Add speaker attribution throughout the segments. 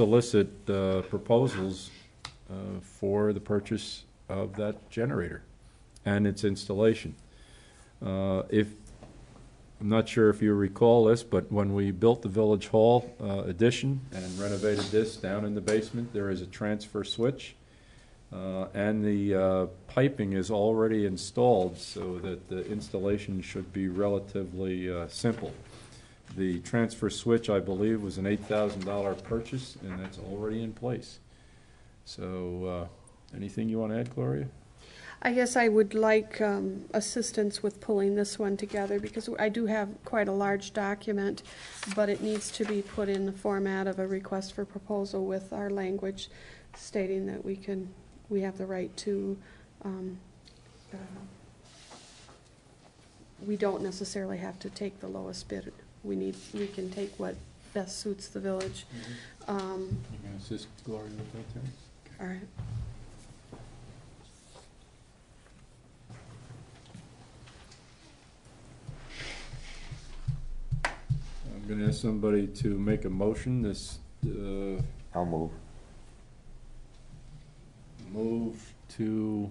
Speaker 1: solicit uh, proposals uh, for the purchase of that generator and its installation. Uh, If, I'm not sure if you recall this, but when we built the Village Hall uh, addition and renovated this down in the basement, there is a transfer switch. Uh, And the uh, piping is already installed, so that the installation should be relatively uh, simple. The transfer switch, I believe, was an eight thousand dollar purchase, and that's already in place. So, uh, anything you want to add, Gloria?
Speaker 2: I guess I would like um, assistance with pulling this one together, because I do have quite a large document, but it needs to be put in the format of a request for proposal with our language stating that we can, we have the right to, um, uh, we don't necessarily have to take the lowest bid. We need, we can take what best suits the village. Um,
Speaker 1: Mm-hmm. You can assist Gloria with that, Terry?
Speaker 2: All right.
Speaker 1: I'm going to ask somebody to make a motion, this, uh,
Speaker 3: I'll move.
Speaker 1: move to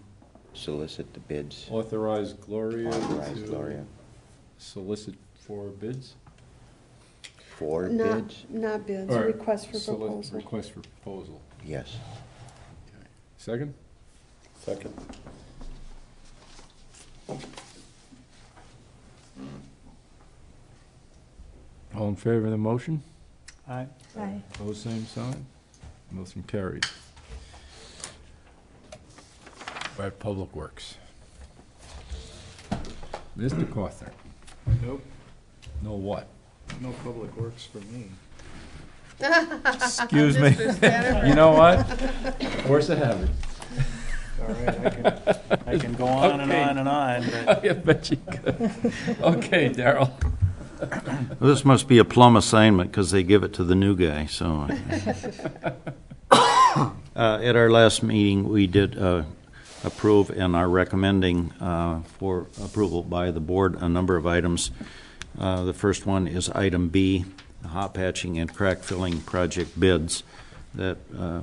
Speaker 3: Solicit the bids.
Speaker 1: authorize Gloria
Speaker 3: Authorize Gloria.
Speaker 1: to solicit for bids?
Speaker 3: Four
Speaker 2: Not,
Speaker 3: bids?
Speaker 2: not bids,
Speaker 1: Or
Speaker 2: request for
Speaker 1: solic-
Speaker 2: proposal.
Speaker 1: Request for proposal.
Speaker 3: Yes.
Speaker 1: Second?
Speaker 3: Second.
Speaker 1: All in favor of the motion?
Speaker 4: Aye.
Speaker 5: Aye.
Speaker 1: Pose same sign. Motion carried. We're at Public Works. Mr. Cawthorn,
Speaker 4: Nope,
Speaker 1: no what?
Speaker 4: no public works for me.
Speaker 1: Excuse me.
Speaker 2: Mr. Spanner.
Speaker 1: You know what? Force of habit.
Speaker 4: All right, I can, I can go on and
Speaker 1: Okay.
Speaker 4: on and on, but
Speaker 1: I bet you could. Okay, Daryl.
Speaker 6: This must be a plum assignment because they give it to the new guy, so. Uh, At our last meeting, we did uh, approve and are recommending uh, for approval by the board a number of items. Uh, The first one is item B, the hot patching and crack filling project bids that uh,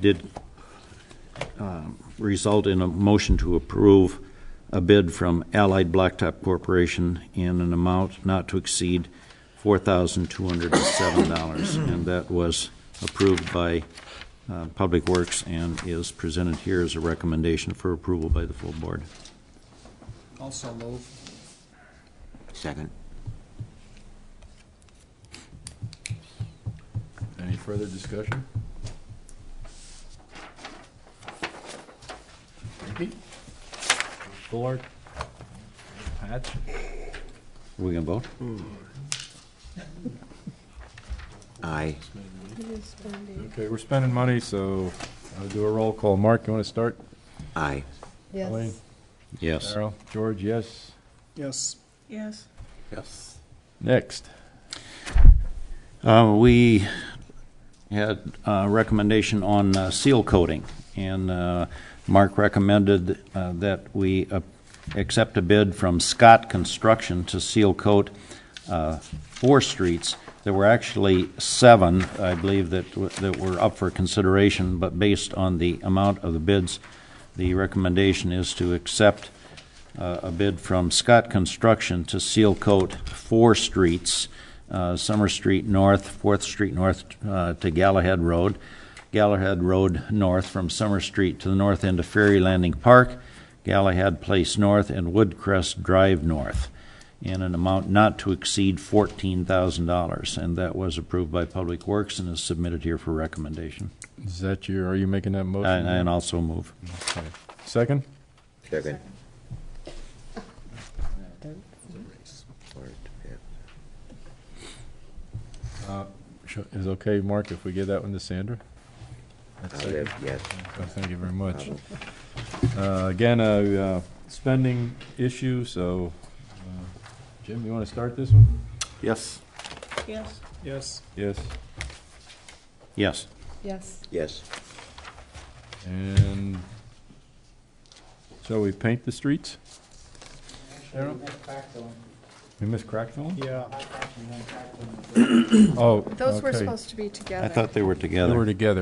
Speaker 6: did result in a motion to approve a bid from Allied Blacktop Corporation in an amount not to exceed $4,207, and that was approved by uh, Public Works and is presented here as a recommendation for approval by the full board.
Speaker 4: also move.
Speaker 3: Second.
Speaker 1: Any further discussion? Ricky? Bullard? Patch?
Speaker 6: Are we going to vote?
Speaker 3: Aye.
Speaker 2: It is spending.
Speaker 1: Okay, we're spending money, so I'll do a roll call. Mark, you want to start?
Speaker 3: Aye.
Speaker 1: Elaine?
Speaker 6: Yes.
Speaker 1: Darrell? George, yes.
Speaker 4: Yes.
Speaker 2: Yes.
Speaker 3: Yes.
Speaker 1: Next.
Speaker 6: Uh, We had a recommendation on uh, seal coating, and uh, Mark recommended uh, that we uh, accept a bid from Scott Construction to seal coat uh, four streets. There were actually seven, I believe, that w- that were up for consideration, but based on the amount of the bids, the recommendation is to accept uh, a bid from Scott Construction to seal coat four streets, uh, Summer Street North, Fourth Street North uh, to Gallahead Road, Gallahead Road North from Summer Street to the north end of Ferry Landing Park, Gallahead Place North, and Woodcrest Drive North, in an amount not to exceed $14,000. And that was approved by Public Works and is submitted here for recommendation.
Speaker 1: Is that you, are you making that motion?
Speaker 6: And and also move.
Speaker 1: Okay. Second?
Speaker 3: Second.
Speaker 1: Sh- Uh, Is okay, Mark, if we give that one to Sandra? That's
Speaker 3: I'll
Speaker 1: second.
Speaker 3: live, yes.
Speaker 1: Oh, Thank you very much. Uh, Again, a uh, spending issue, so, uh, Jim, you want to start this one?
Speaker 6: Yes.
Speaker 2: Yes.
Speaker 4: Yes.
Speaker 1: Yes.
Speaker 6: Yes.
Speaker 5: Yes.
Speaker 3: Yes.
Speaker 1: And shall we paint the streets? Cheryl? And Ms. Cracknell?
Speaker 7: Yeah.
Speaker 1: Oh,
Speaker 4: Those were
Speaker 1: okay.
Speaker 4: supposed to be together.
Speaker 2: I thought they were together.
Speaker 1: Oh, They were together.